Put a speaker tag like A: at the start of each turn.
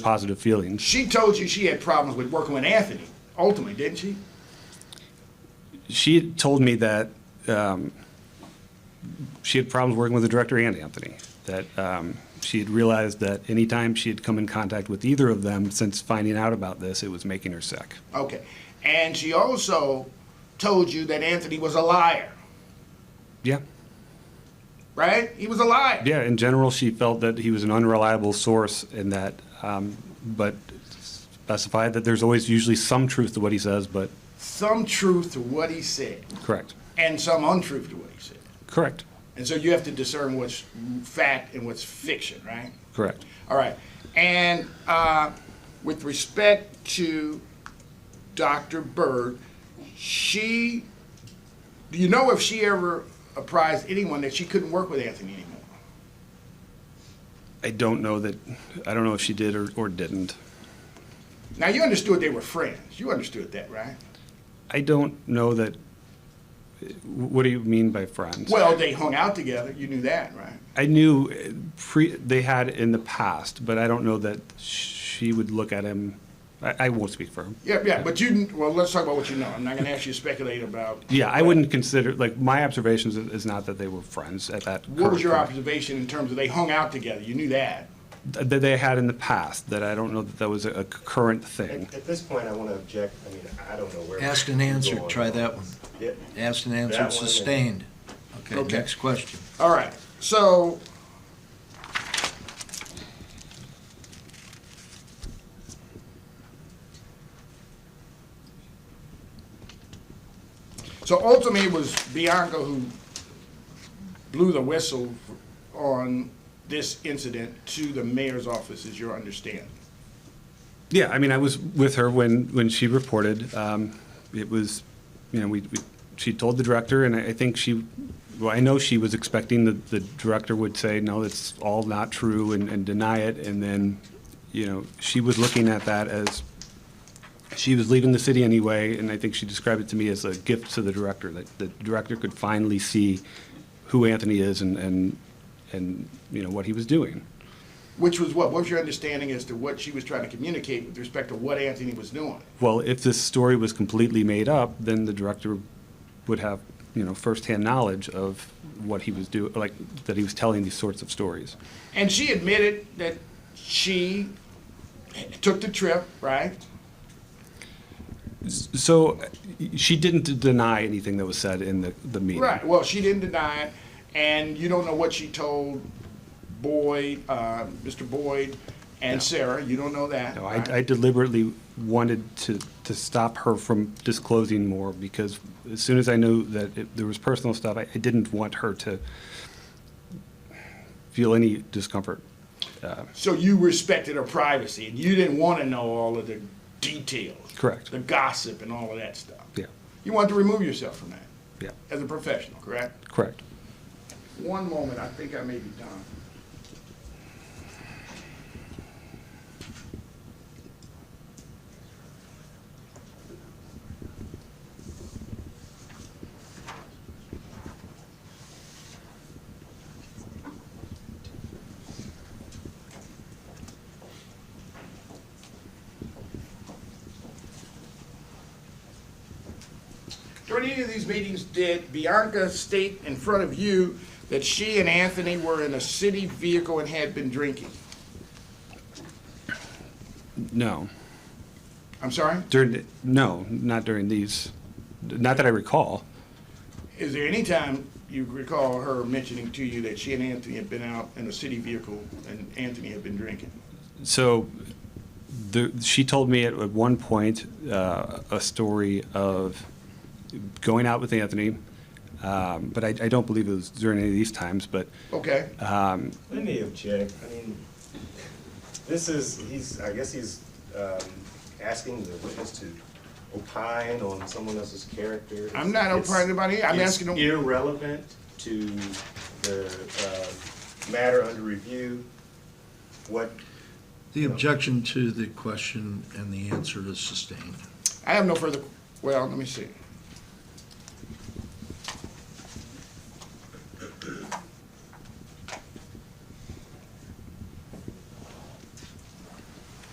A: positive feelings.
B: She told you she had problems with working with Anthony, ultimately, didn't she?
A: She told me that um, she had problems working with the director and Anthony, that um, she had realized that anytime she had come in contact with either of them since finding out about this, it was making her sick.
B: Okay. And she also told you that Anthony was a liar,
A: Yeah.
B: right? He was a liar.
A: Yeah, in general, she felt that he was an unreliable source and that, um, but specified that there's always usually some truth to what he says, but
B: Some truth to what he said
A: correct.
B: and some untruth to what he said.
A: Correct.
B: And so you have to discern what's fact and what's fiction, right?
A: Correct.
B: All right. And uh, with respect to Dr. Bird, she, do you know if she ever apprised anyone that she couldn't work with Anthony anymore?
A: I don't know that, I don't know if she did or, or didn't.
B: Now, you understood they were friends. You understood that, right?
A: I don't know that. What do you mean by friends?
B: Well, they hung out together. You knew that, right?
A: I knew uh, pre, they had in the past, but I don't know that she would look at him. I, I won't speak for him.
B: Yeah, yeah. But you, well, let's talk about what you know. I'm not going to ask you to speculate about.
A: Yeah, I wouldn't consider like my observations is, is not that they were friends at that.
B: What was
A: current
B: your
A: point.
B: observation in terms of they hung out together? You knew that.
A: Th- That they had in the past. That I don't know that that was a, a current thing.
C: At at this point, I want to object, I mean, I don't know where.
D: Asked and answered, try that one.
C: Yeah.
D: Asked and
C: That
D: answered,
C: one and-
D: sustained. Okay,
B: Okay.
D: next question.
B: All right. So So ultimately, it was Bianca who blew the whistle on this incident to the mayor's office, is your understanding?
A: Yeah, I mean, I was with her when, when she reported. Um, It was, you know, we, we- she told the director, and I I think she, well, I know she was expecting that the director would say, no, it's all not true, and and deny it, and then, you know, she was looking at that as, she was leaving the city anyway, and I think she described it to me as a gift to the director, that the director could finally see who Anthony is and, and, and, you know, what he was doing.
B: Which was what? What was your understanding as to what she was trying to communicate with respect to what Anthony was doing?
A: well, if this story was completely made up, then the director would have, you know, firsthand knowledge of what he was doing, like, that he was telling these sorts of stories.
B: And she admitted that she took the trip, right?
A: So uh, she didn't deny anything that was said in the, the meeting.
B: Right. Well, she didn't deny it, and you don't know what she told Boyd, uh, Mr. Boyd, and Sarah. You don't know that.
A: No,
B: right?
A: I, I deliberately wanted to, to stop her from disclosing more because as soon as I knew that it, there was personal stuff, I, I didn't want her to feel any discomfort.
B: so you respected her privacy, and you didn't want to know all of the details,
A: Correct.
B: the gossip, and all of that stuff.
A: Yeah,
B: You wanted to remove yourself from that
A: yeah,
B: as a professional, correct?
A: correct.
B: One moment, I think I may be done. During any of these meetings, did Bianca state in front of you that she and Anthony were in a city vehicle and had been drinking?
A: No.
B: I'm sorry?
A: During, the- no, not during these, not that I recall.
B: Is there any time you recall her mentioning to you that she and Anthony had been out in a city vehicle and Anthony had been drinking?
A: So the, she told me at, at one point uh, a story of going out with Anthony, um, but I, I don't believe it was during any of these times, but
B: Okay.
C: Let me object, I mean, this is, he's, I guess he's um, asking the witness to opine on someone else's character.
B: I'm not
C: It's-
B: opining about it. I'm
C: it's
B: asking him-
C: irrelevant to the um, matter under review, what
D: The objection to the question and the answer is sustained.
B: I have no further, well, let me see.